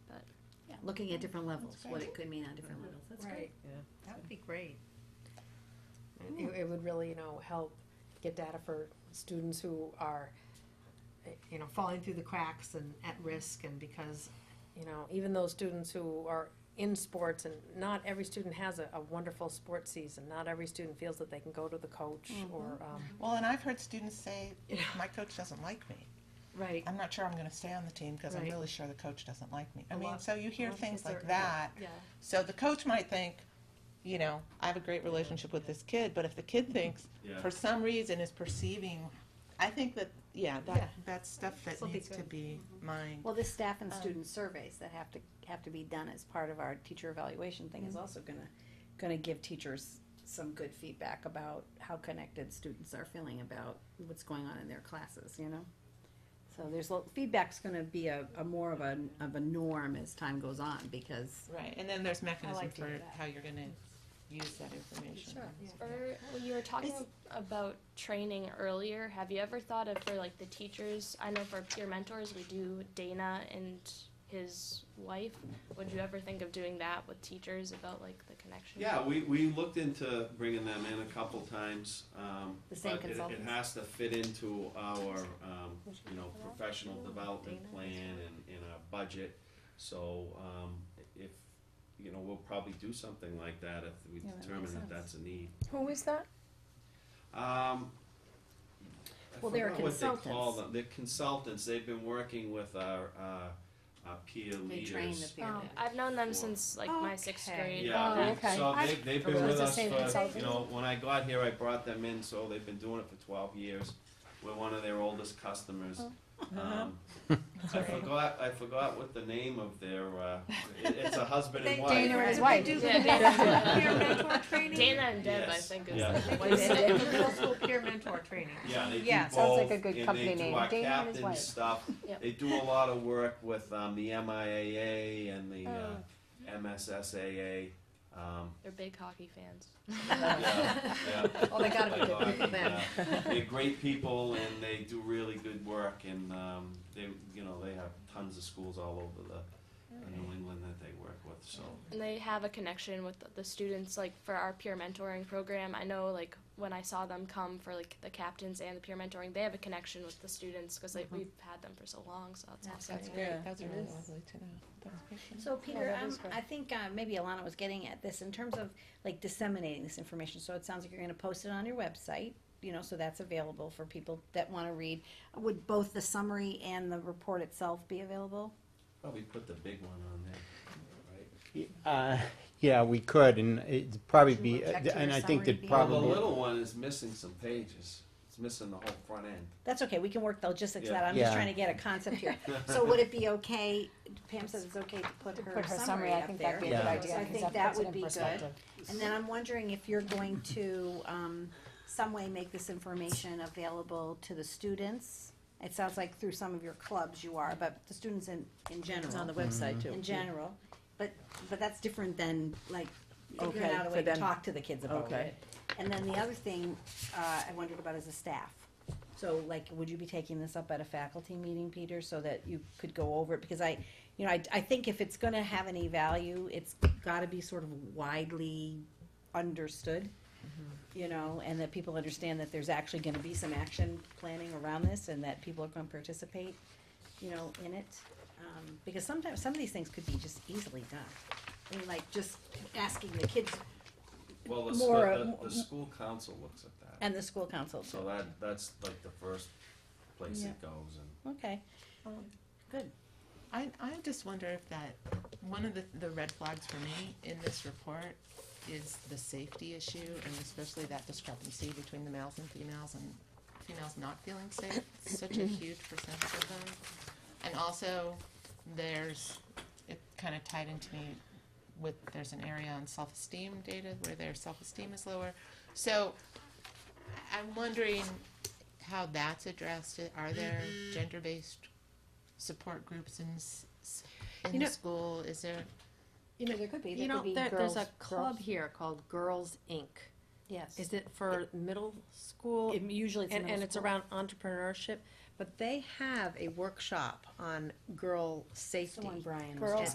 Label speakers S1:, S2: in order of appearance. S1: looking at different levels, what it could mean on different
S2: Mhm.
S1: levels, that's great.
S2: Right,
S3: Yeah.
S2: that would be great. It, it would really, you know, help get data for students who are, eh, you know, falling through the cracks and at risk and because, you know, even those students who are in sports and not every student has a, a wonderful sports season. Not every student feels that they can go to the coach
S1: Mm-hmm.
S2: or, um,
S4: Well, and I've heard students say,
S2: Yeah.
S4: my coach doesn't like me.
S2: right,
S4: I'm not sure I'm going to stay on the team because I'm
S2: Right.
S4: really sure the coach doesn't like me. I
S2: A
S4: mean,
S2: lot-
S4: so you
S2: a
S4: hear
S2: lot of
S4: things
S2: kids are-
S4: like
S2: yeah.
S4: that.
S2: yeah.
S4: So the coach might think, you know, I have a great relationship with this kid, but if the kid thinks,
S5: Yeah.
S4: for some reason, is perceiving, I think that, yeah, that,
S2: Yeah.
S4: that's stuff that
S2: This'll be
S4: needs to
S2: good. Mm-hmm.
S4: be mined.
S1: Well, this staff and
S4: Um,
S1: student surveys that have to, have to be done as part of our teacher evaluation thing is also gonna, gonna give teachers some good feedback about how connected students are feeling about what's going on in their classes, you know? So there's, lo- feedback's gonna be a, a more of a, of a norm as time goes on, because
S4: Right, and then there's mechanism
S2: like to
S4: for
S2: hear that.
S4: how you're going to use that information.
S1: Sure.
S6: Or when you were talking
S4: Is-
S6: about training earlier, have you ever thought of for like the teachers? I know for peer mentors, we do Dana and his wife. Would you ever think of doing that with teachers about like the connection?
S5: Yeah, we, we looked into bringing them in a couple times, um,
S1: The same
S5: but it, it
S1: consultants?
S5: has to fit into our, um, you know, professional development plan and, and our budget. So, um, if, you know, we'll probably do something like that if we
S1: Yeah, that makes
S5: determine
S1: sense.
S5: that that's a need.
S6: Who is that?
S5: Um, I
S1: Well, they're
S5: forgot what they call
S1: consultants.
S5: them. They're consultants, they've been working with our, uh, our peer leaders.
S1: they train the peer.
S2: Oh.
S6: I've known them
S5: Sure.
S6: since like my sixth
S2: Okay.
S6: grade.
S5: Yeah,
S1: Oh,
S5: they-
S1: okay.
S5: so
S1: I-
S5: they, they've
S1: I
S5: been
S1: was
S5: with
S1: the
S5: us
S1: same
S5: for, you
S1: consultant.
S5: know, when I got here, I brought them in, so they've been doing it for twelve years. We're one of their oldest customers. Um, I forgot, I forgot what the name of their, uh, it, it's a husband and wife.
S1: Dana and his
S2: They
S1: wife.
S2: do
S6: Yeah.
S2: the peer mentor training.
S6: Dana and Deb, I
S5: Yes,
S6: think is
S5: yeah.
S6: the
S2: They do
S6: wife's name.
S2: the middle school peer mentor training.
S5: Yeah, they do
S2: Yeah,
S5: both.
S7: sounds like a good
S5: and
S7: company
S5: they do
S7: name.
S5: our
S7: Dana and his
S5: captain
S7: wife.
S5: stuff.
S6: Yep.
S5: They do a lot of work with um, the MIAA and the uh, MSSAA. Um,
S6: They're big hockey fans.
S1: Oh.
S5: yeah, yeah.
S1: Well, they gotta be
S5: Like,
S1: good people
S5: uh,
S1: then.
S5: yeah. They're great people and they do really good work and, um, they, you know, they have tons of schools all over the, in New England that they work with, so.
S6: And they have a connection with the students, like for our peer mentoring program. I know, like when I saw them come for like the captains and the peer mentoring, they have a connection with the students because like we've had them for so long. So that's awesome.
S4: That's great, that's really lovely to know. That's great.
S1: So Peter,
S7: Oh, that
S1: um,
S7: is great.
S1: I think, uh, maybe Alana was getting at this in terms of like disseminating this information, so it sounds like you're gonna post it on your website, you know, so that's available for people that wanna read. Would both the summary and the report itself be available?
S5: Probably put the big one on there, right?
S7: Uh, Yeah, we could, and it'd probably
S1: Should
S7: be, uh,
S1: we check to
S7: and
S1: your
S7: I think
S1: summary
S7: that
S1: view?
S5: Well, the
S7: probably,
S5: little one is missing some pages. It's missing the whole front end.
S1: That's okay, we can work the logistics of
S5: Yeah.
S1: that, I'm just
S7: Yeah.
S1: trying to get a concept here. So would it be okay, Pam says it's okay to put her
S7: put her
S1: summary
S7: summary, I
S1: up
S7: think
S1: there?
S7: that'd be a good
S1: So
S7: idea,
S1: I
S7: 'cause
S1: think
S7: that
S1: that
S7: puts it
S1: would
S7: in
S1: be good.
S7: perspective.
S1: And then I'm wondering if you're going to, um, some way make this information available to the students? It sounds like through some of your clubs you are, but the students in, in general.
S2: It's on the website too.
S1: In general, but, but that's different than like figuring
S2: Okay,
S1: out a
S2: for
S1: way to
S2: them-
S1: talk to the kids about
S2: okay.
S1: it. And then the other thing, uh, I wondered about is the staff. So like, would you be taking this up at a faculty meeting, Peter, so that you could go over it? Because I, you know, I, I think if it's gonna have any value, it's gotta be sort of widely understood.
S2: Mm-hmm.
S1: You know, and that people understand that there's actually gonna be some action planning around this and that people are gonna participate, you know, in it. Um, because sometimes, some of these things could be just easily done. I mean, like just asking the kids
S5: Well, the,
S1: More, uh,
S5: the,
S1: mo-
S5: the school council looks at that.
S1: and the school council.
S5: So that, that's like the first place
S4: Yeah.
S5: it goes and.
S1: Okay,
S4: I, I just wonder if that, one of the, the red flags for me in this report is the safety issue and especially that discrepancy between the males and females and females not feeling safe, such a huge percentage of them. And also, there's, it kind of tied into me with, there's an area on self-esteem data where their self-esteem is lower. So I- I'm wondering how that's addressed. Are there gender-based support groups in s- s- in
S2: You
S4: the
S2: know-
S4: school? Is there?
S1: you know, there could be,
S2: You
S1: there
S2: know,
S1: could be
S2: there,
S1: girls.
S2: there's a club
S1: girls.
S2: here called Girls Inc.
S1: Yes.
S2: Is it for middle school?
S1: It- Usually it's
S2: And,
S1: middle
S2: and it's
S1: school.
S2: around entrepreneurship, but they have a workshop on girl
S1: It's the one
S2: safety.
S1: Brian was
S6: Girls
S1: talking